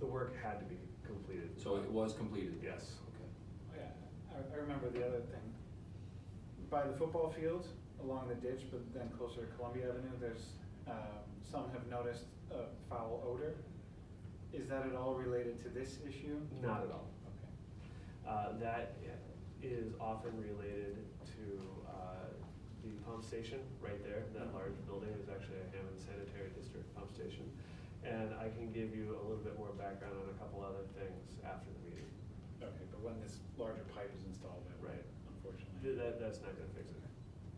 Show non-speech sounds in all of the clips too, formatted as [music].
work had to be completed. So it was completed? Yes. Okay. Yeah, I, I remember the other thing. By the football field, along the ditch, but then closer to Columbia Avenue, there's, um, some have noticed a foul odor. Is that at all related to this issue? Not at all. Okay. Uh, That is often related to uh, the pump station right there. Mm-hmm. That large building is actually a Hammond Sanitary District pump station. And I can give you a little bit more background on a couple other things after the meeting. Okay, but when this larger pipe is installed, that Right. would, unfortunately. Th- That, that's not gonna fix it.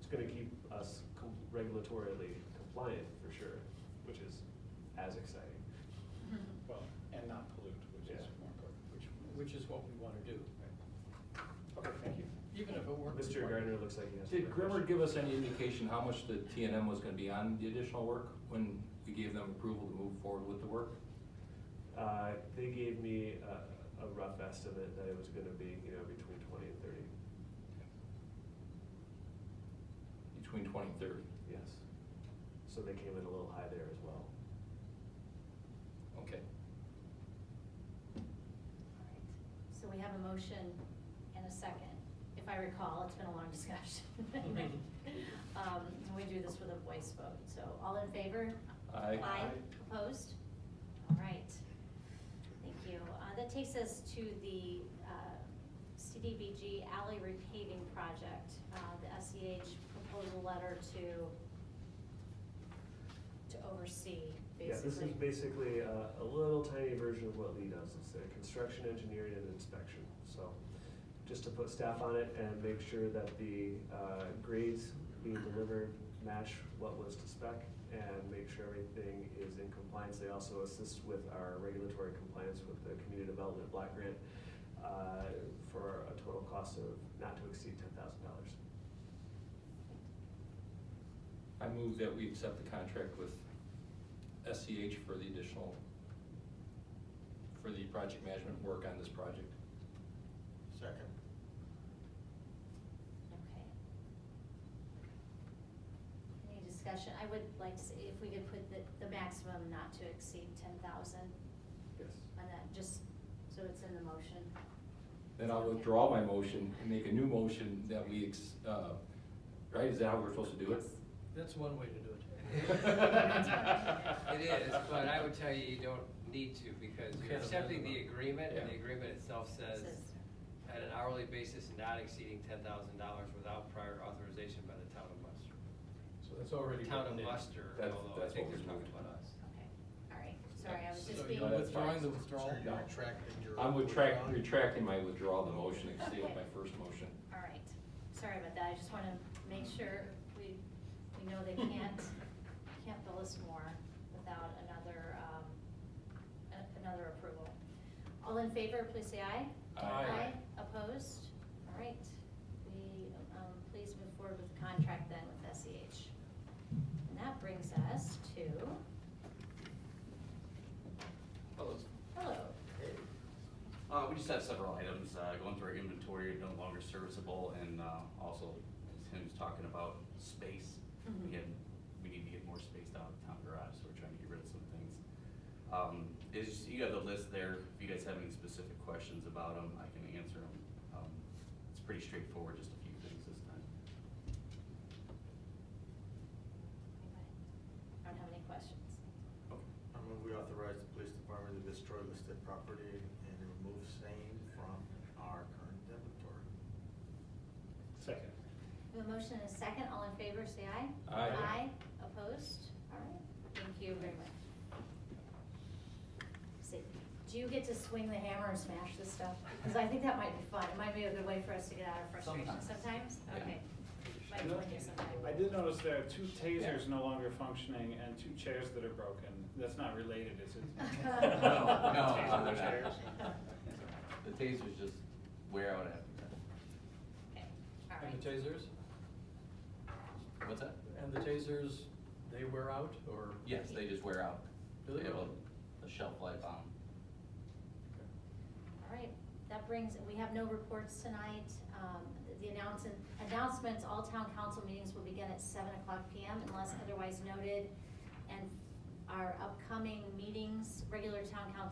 It's gonna keep us com- regulatorily compliant for sure, which is as exciting. Well, and not pollute, which is Yeah. more important. Which, which is what we want to do, Right. Okay, thank you. even if it were. Mr. Gardner looks like he has. Did more Grimmer questions. give us any indication how much the T and M was gonna be on the additional work when we gave them approval to move forward with the work? Uh, they gave me a, a rough estimate that it was gonna be, you know, between twenty and thirty, Between twenty and thirty? yes. So they came in a little high there as well. Okay. Alright, So we have a motion and a second. If I recall, it's been a long [laughs] discussion. Um, and we do this with a voice vote, so all in favor? Aye. Aye, Aye. opposed? All right, thank you. Uh, that takes us to the, uh, CDBG alley repaving project, uh, the SEH proposal letter to, to oversee, Yeah, this is basically a, a little tiny version of what Lee does, it's their construction engineering and inspection, so. Just to put staff on it and make sure that the, uh, grades being delivered match what was to spec and make sure everything is in compliance, they also assist with our regulatory compliance with the community development block grant, uh, for a total cost of not to exceed ten thousand dollars. I move that we accept the contract with SCH for the additional, for the project management work on this project. Second. Okay. Any discussion? I would like to see if we could put the, the maximum not to exceed ten thousand Yes. on that, just so it's in the motion. Then I'll withdraw my motion and make a new motion that we, ex- uh, right, is that how we're supposed to do it? Yes. That's one way to do it. [laughs] [laughs] It is, but I would tell you, you don't need to, because Kind you're of accepting the minimum. agreement, and the Yeah. agreement itself says, Says- at an hourly basis not exceeding ten thousand dollars without prior authorization by the town of Munster. So that's already. Town written of in. Munster, That's- although I that's think what they're we talking moved. about us. Okay, all right, sorry, I was So just you're being. No, that's withdrawing the fine. withdrawal? So you're No. retracting I'm retract, retracting my withdrawal of the motion, and stay with my first motion. All right, sorry about that, I just wanna make sure we, we know they can't, [laughs] can't bill us more without another, um, a- another approval. All in favor, please say aye. Aye. opposed? All right, we, um, please move forward with the contract then with SEH. And that brings us to, Hello. hello, Uh, we just have several items, uh, going through our inventory, no longer serviceable, and, uh, also, as Tim was talking about space. Mhm. We had, we need to get more space down at the town garage, so we're trying to get rid of some things. Um, is, you have the list there, if you guys have any specific questions about them, I can answer them. Um, it's pretty straightforward, just a few things this time. I don't have any questions. I move we authorize the police department to destroy listed property and remove same from our current inventory. Second. We have a motion and a second, all in favor, say aye. Aye. opposed? All right, thank you very much. See, do you get to swing the hammer and smash this stuff? Because I think that might be fun, it might be a good way for us to get out of frustration Sometimes. sometimes, Yeah. okay. Might No, join you sometime. I did [laughs] notice there are two tasers no longer functioning and two chairs that are broken. That's not related, is it? No, Taser no, chairs. [laughs] no. The tasers just wear out after Okay, all right. And the tasers? that. What's that? And the tasers, they wear out or? Yes, they just wear out. Do they have really? a- A shelf life on them. All right, that brings, we have no reports tonight. Um, The announcement, announcements, all town council meetings will begin at seven o'clock PM unless otherwise noted. And our upcoming meetings, regular town council